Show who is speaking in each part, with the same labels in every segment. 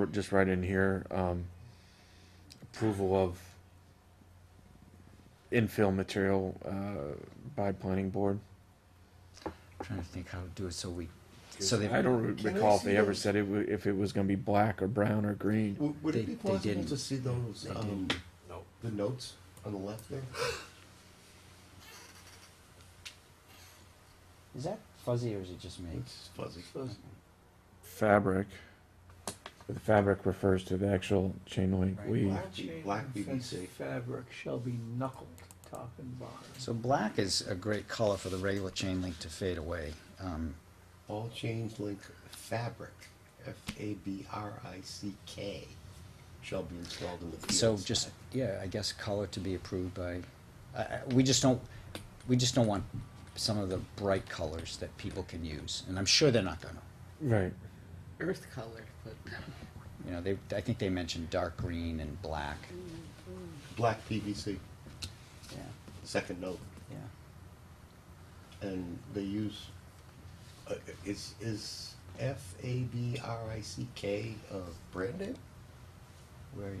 Speaker 1: r- just right in here, um, approval of infill material, uh, by planning board.
Speaker 2: Trying to think how to do it so we, so they.
Speaker 1: I don't re-
Speaker 3: Can we
Speaker 1: recall if
Speaker 3: see
Speaker 1: they ever
Speaker 3: those?
Speaker 1: said it, wa- if it was gonna be black or brown or green.
Speaker 3: Would, would
Speaker 2: They-
Speaker 3: it be
Speaker 2: they
Speaker 3: possible
Speaker 2: didn't.
Speaker 3: to see those,
Speaker 2: They
Speaker 3: um,
Speaker 2: didn't.
Speaker 3: the notes on the left there?
Speaker 2: Is that fuzzy or is it just me?
Speaker 3: It's fuzzy.
Speaker 1: Fabric, the fabric refers to the actual chain link
Speaker 2: Right.
Speaker 1: weave.
Speaker 3: Black B- black BBC.
Speaker 4: Fabric shall be knuckled, top and bottom.
Speaker 2: So black is a great color for the regular chain link to fade away. Um,
Speaker 3: All chains link fabric, F A B R I C K, shall be installed in the field.
Speaker 2: So just, yeah, I guess color to be approved by, I- I- we just don't, we just don't want some of the bright colors that people can use. And I'm sure they're not gonna.
Speaker 1: Right,
Speaker 5: earth colored, but
Speaker 2: You know, they, I think they mentioned dark green and black.
Speaker 3: Black PVC,
Speaker 2: Yeah,
Speaker 3: second note,
Speaker 2: yeah.
Speaker 3: and they use, uh, is, is F A B R I C K, uh, brand name?
Speaker 2: Where are you?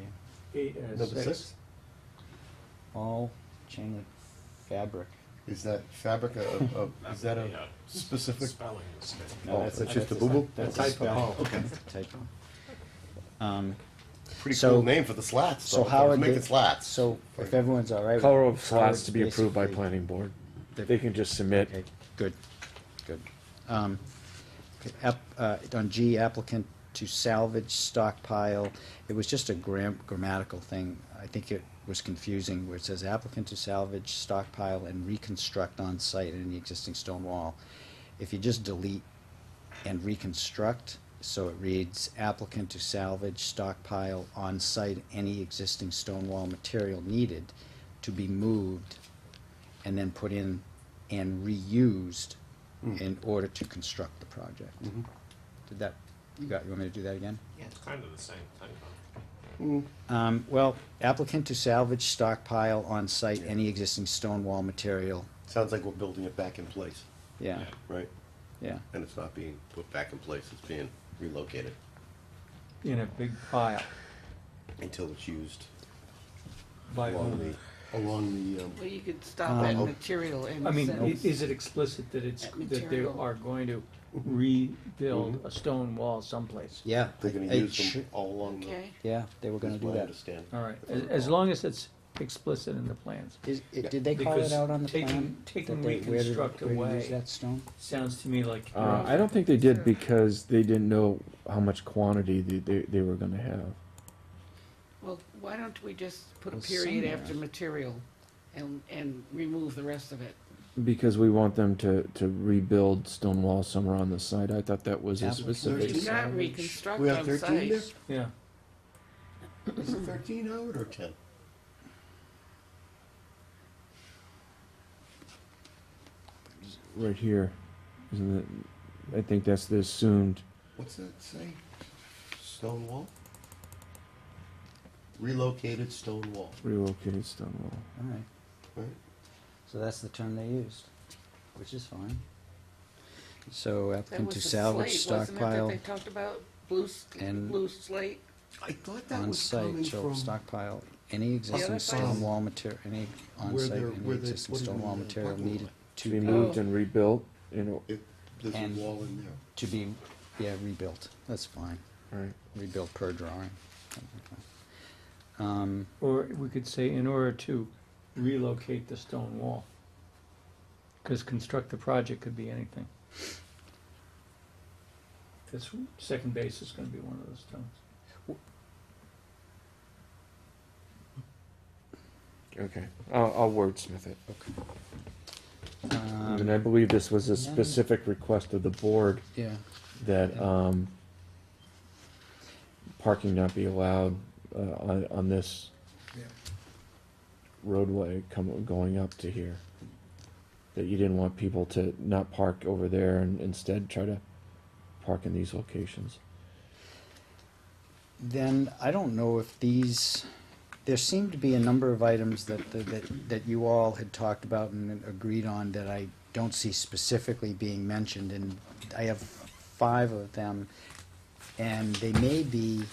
Speaker 4: Eight, uh,
Speaker 3: Number six?
Speaker 2: All chain link fabric.
Speaker 3: Is that fabric a, a, is that a specific?
Speaker 6: Spelling is good.
Speaker 2: No,
Speaker 3: Oh,
Speaker 2: that's-
Speaker 3: that's just a
Speaker 2: that's
Speaker 3: boo-boo?
Speaker 2: not- That's
Speaker 3: A
Speaker 2: a
Speaker 3: typo.
Speaker 2: spelling.
Speaker 3: Oh, okay.
Speaker 2: That's a typo. Um,
Speaker 3: Pretty
Speaker 2: So-
Speaker 3: cool name for the slats.
Speaker 2: so
Speaker 3: though.
Speaker 2: how
Speaker 3: They're
Speaker 2: are they,
Speaker 3: making slats?
Speaker 2: so if everyone's all right. with
Speaker 1: color of
Speaker 2: Uh, color,
Speaker 1: slats to be approved by
Speaker 2: basically-
Speaker 1: planning board.
Speaker 2: the-
Speaker 1: They can just submit
Speaker 2: Okay, good, good. Um, okay, app, uh, on G applicant to salvage stockpile, it was just a gram, grammatical thing. I think it was confusing where it says applicant to salvage stockpile and reconstruct on site any existing stone wall. If you just delete and reconstruct, so it reads applicant to salvage stockpile on site any existing stone wall material needed to be moved and then put in and reused
Speaker 3: Hmm.
Speaker 2: in order to construct the project.
Speaker 3: Mm-hmm.
Speaker 2: Did that, you got, you want me to do that again?
Speaker 5: yeah.
Speaker 6: It's kind of the same thing. huh?
Speaker 3: Mm.
Speaker 2: Um, well, applicant to salvage stockpile on site any existing stone wall material,
Speaker 3: Sounds like we're building it back in place,
Speaker 2: yeah,
Speaker 3: right?
Speaker 2: yeah.
Speaker 3: And it's not being put back in place, it's being relocated
Speaker 4: In a big pile
Speaker 3: until it's used
Speaker 4: by
Speaker 3: along
Speaker 4: whom?
Speaker 3: the, along the, um,
Speaker 5: Well, you could stop at
Speaker 3: Um,
Speaker 5: material and.
Speaker 4: I mean,
Speaker 5: send-
Speaker 4: i- is it explicit that it's,
Speaker 5: That
Speaker 4: that they
Speaker 5: material.
Speaker 4: are going to
Speaker 3: Mm-hmm.
Speaker 4: rebuild a stone wall someplace?
Speaker 2: Yeah.
Speaker 3: they're gonna
Speaker 2: it
Speaker 3: use them
Speaker 2: should-
Speaker 3: all along the.
Speaker 5: Okay,
Speaker 2: Yeah, they were gonna
Speaker 3: is
Speaker 2: do
Speaker 3: my
Speaker 2: that.
Speaker 3: understanding.
Speaker 4: All right, as, as long as it's explicit in the plans.
Speaker 2: Is, it, did they call it
Speaker 4: Because
Speaker 2: out on the
Speaker 4: taking-
Speaker 2: plan?
Speaker 4: taking
Speaker 2: that they- where to-
Speaker 4: reconstruct
Speaker 2: where to
Speaker 4: away-
Speaker 2: use that stone?
Speaker 4: Sounds to me like. you're
Speaker 1: Uh, I don't think they did because they didn't know how much quantity they, they, they were gonna have.
Speaker 5: well, why don't we just put a
Speaker 2: Well,
Speaker 5: period
Speaker 2: somewhere.
Speaker 5: after material and, and remove the rest of it?
Speaker 1: Because we want them to, to rebuild stone walls somewhere on the site. I thought that was a
Speaker 2: Applicant.
Speaker 1: specific.
Speaker 5: Do
Speaker 3: There's-
Speaker 5: not reconstruct
Speaker 3: We have
Speaker 5: on
Speaker 3: thirteen
Speaker 5: site.
Speaker 3: there?
Speaker 4: Yeah,
Speaker 3: Is it thirteen out or ten?
Speaker 1: Right here, isn't it? I think that's the assumed.
Speaker 3: What's that say? Stone wall? Relocated stone wall,
Speaker 1: relocated stone wall.
Speaker 2: All right,
Speaker 3: right?
Speaker 2: so that's the term they used, which is fine. So
Speaker 5: That
Speaker 2: applicant
Speaker 5: was
Speaker 2: to
Speaker 5: the
Speaker 2: salvage
Speaker 5: slate, wasn't it, that
Speaker 2: stockpile
Speaker 5: they talked about? Blue, s-
Speaker 2: and-
Speaker 5: blue slate?
Speaker 3: I thought that
Speaker 2: on
Speaker 3: was coming
Speaker 2: site shall
Speaker 3: from
Speaker 2: stockpile any existing
Speaker 5: that's
Speaker 2: stone
Speaker 5: nice.
Speaker 2: wall material, any on
Speaker 3: Where
Speaker 2: site
Speaker 3: they're-
Speaker 2: any
Speaker 3: where they
Speaker 2: existing
Speaker 3: put it
Speaker 2: stone
Speaker 3: in
Speaker 2: wall
Speaker 3: the
Speaker 2: material
Speaker 3: parking lot.
Speaker 2: needed
Speaker 1: To be
Speaker 2: to,
Speaker 1: moved and rebuilt, you know,
Speaker 3: it, there's
Speaker 2: And-
Speaker 3: a wall in there.
Speaker 2: to be, yeah, rebuilt, that's fine,
Speaker 1: right.
Speaker 2: rebuilt per drawing. Um,
Speaker 4: or we could say in order to relocate the stone wall. Cause construct the project could be anything. This second base is gonna be one of those stones.
Speaker 1: Okay, I'll, I'll wordsmith it.
Speaker 2: um,
Speaker 1: and I believe this was a
Speaker 2: yeah.
Speaker 1: specific request of the board
Speaker 2: um, yeah,
Speaker 1: that um, parking not be allowed uh, on, on this roadway come, going up to here. That you didn't want people to not park over there and instead try to park in these locations.
Speaker 2: then I don't know if these, there seemed to be a number of items that, that, that you all had talked about and agreed on that I don't see specifically being mentioned, and I have five of them. And they may be